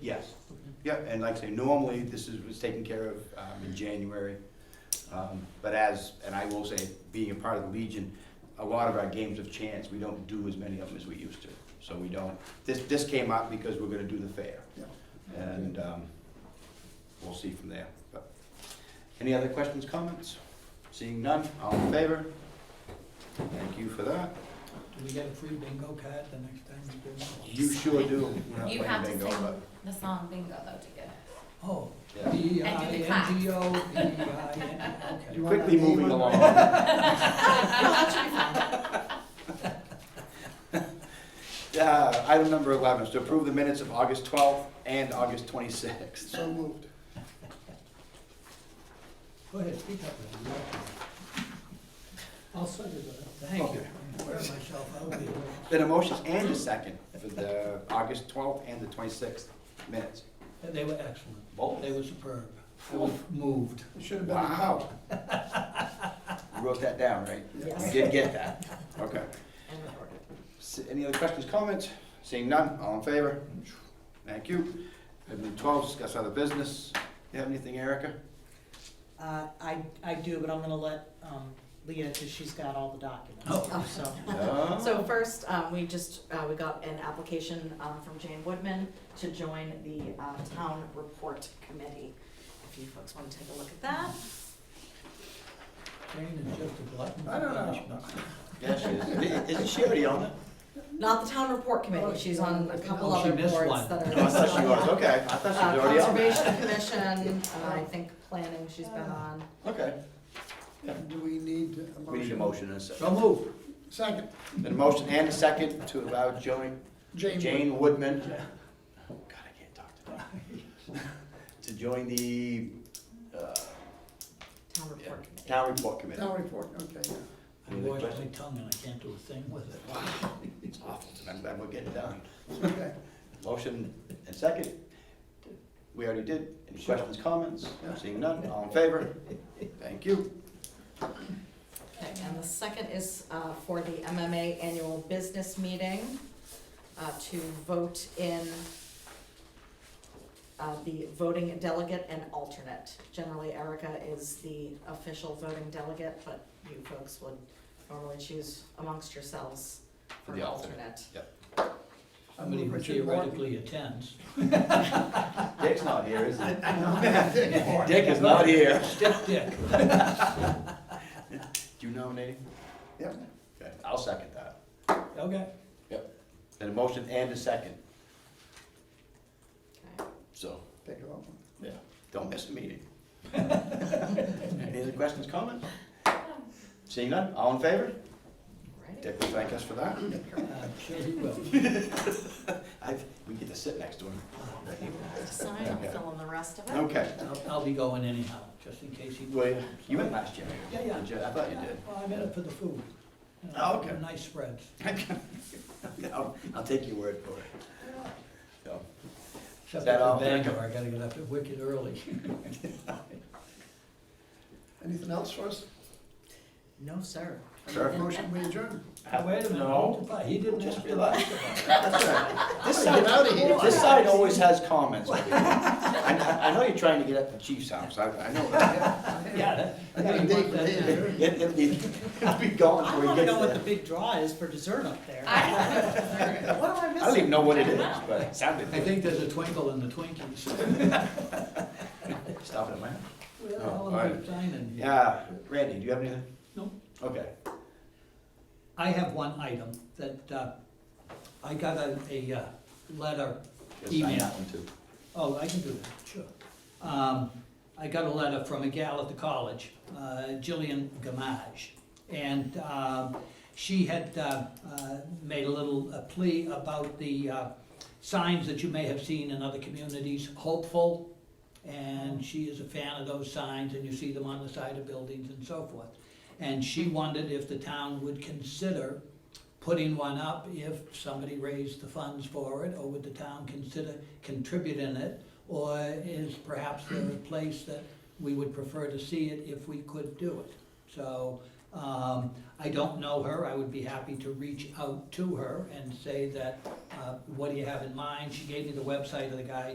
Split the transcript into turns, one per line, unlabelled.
Yes, yeah, and like I say, normally this is, was taken care of um, in January. Um, But as, and I will say, being a part of the Legion, a lot of our games of chance, we don't do as many of them as we used to. So we don't, this, this came up because we're gonna do the fair.
Yeah.
And um, we'll see from there. But Any other questions, comments? Seeing none, all in favor? Thank you for that.
Do we get a free bingo card the next time we do?
You sure do. We're not
You
playing
have to
bingo,
sing
but-
the song bingo though to get it.
Oh,
Yeah.
B I
And do the
N G O, B I N, okay.
You want
Quickly
that name
moving
on-
along. Uh, Item number 11 is to approve the minutes of August 12th and August 26th.
So moved.
Go ahead, speak up. man. I'll send it, but thank you.
Okay.
I'm wearing myself out here.
Been a motion and a second for the August 12th and the 26th minutes.
And They were excellent.
Both.
They were superb. I was moved.
It should have been a
Wow.
cop.
You wrote that down, right? You
Yes.
did get that. Okay. S- Any other questions, comments? Seeing none, all in favor? Thank you. Item number 12, discuss other business. You have anything, Erica?
Uh, I, I do, but I'm gonna let, um, Leah, cause she's got all the documents,
Oh.
so.
No?
So first, um, we just, uh, we got an application, um, from Jane Woodman to join the, uh, town report committee. If you folks wanna take a look at that.
Jane is just a glutton for
I don't know.
punishment.
Yeah, she is. Isn't she already on it?
Not the town report committee, she's on a couple
Oh, she
other
missed
boards
one.
that are.
Oh, I thought she was, okay. I thought she
Uh,
was already on it.
Conservation Commission, uh, I think planning she's been
Oh.
on.
Okay.
Do we need a motion?
We need a motion and a second.
So moved.
Second,
Been a motion and a second to allow Joan,
Jane.
Jane Woodman. Oh, God, I can't talk today. To join the, uh,
Town report committee.
town report committee.
Town report, okay, yeah.
I
Any other
washed my
questions?
tongue and I can't do a thing with it.
It's awful, and I'm glad we're getting done.
okay.
Motion and second. We already did. Any questions, comments? Seeing none, all in favor? Thank you.
Okay, and the second is uh, for the MMA annual business meeting uh, to vote in uh, the voting delegate and alternate. Generally Erica is the official voting delegate, but you folks would normally choose amongst yourselves
For
for
the
an
alternate.
alternate.
I
Somebody
move
who
Richard Morton.
theoretically attends.
Dick's not here, is he? Dick is not here.
Stick dick.
Do you nominate him?
Yep.
Okay, I'll second that.
Okay.
Then a motion and a second,
Okay.
so.
Take it off.
Yeah, don't miss a meeting. Any other questions, comments? Seeing none, all in favor?
Alrighty.
Dick will thank us for that.
I'm Uh, sure he will.
I, we get to sit next to him.
Sign, I'll fill in the rest of it.
Okay,
I'll, I'll be going anyhow, just in case he.
well, you went last year.
Yeah, yeah.
Did you? I thought you did.
Well, I'm in it for the food. You know,
Oh, okay.
Nice spreads.
I'll, I'll take your word for it. So,
Except
that all?
for Bangor, I gotta get up at wicked early.
Anything else for us?
No, sir.
Sure.
Motion, we adjourn.
Ah,
Wait a minute,
No.
hold the, he didn't
Just
ask me
relax.
that.
That's all right. This
Get
side,
out of here.
this side always has comments. over here. I, I- I know you're trying to get at the chief's house, I, I know that.
Yeah, that-
I
yeah,
got a
he
date
wants that
with
dinner.
Dave.
It, it, will be gone
I
before he
wanna
gets
know what the
there.
big draw is for dessert up there.
Alright.
What am I missing?
I don't even know what it is, but it sounded
I
good.
think there's a twinkle in the Twinkies.
Stop it, man.
Where the
Oh,
hell am
all
I
right.
signing?
Yeah, Randy, do you have anything?
No.
Okay.
I have one item that, uh, I got a, a uh, letter,
Yes, I
email.
have one too.
Oh, I can do that, sure. Um, I got a letter from a gal at the college, uh, Jillian Gamage. And, um, she had, uh, uh, made a little uh, plea about the, uh, signs that you may have seen in other communities, hopeful. And she is a fan of those signs and you see them on the side of buildings and so forth. And she wondered if the town would consider putting one up if somebody raised the funds for it, or would the town consider contributing it? Or is perhaps there a place that we would prefer to see it if we could do it? So, um, I don't know her, I would be happy to reach out to her and say that, uh, what do you have in mind? She gave me the website of the guy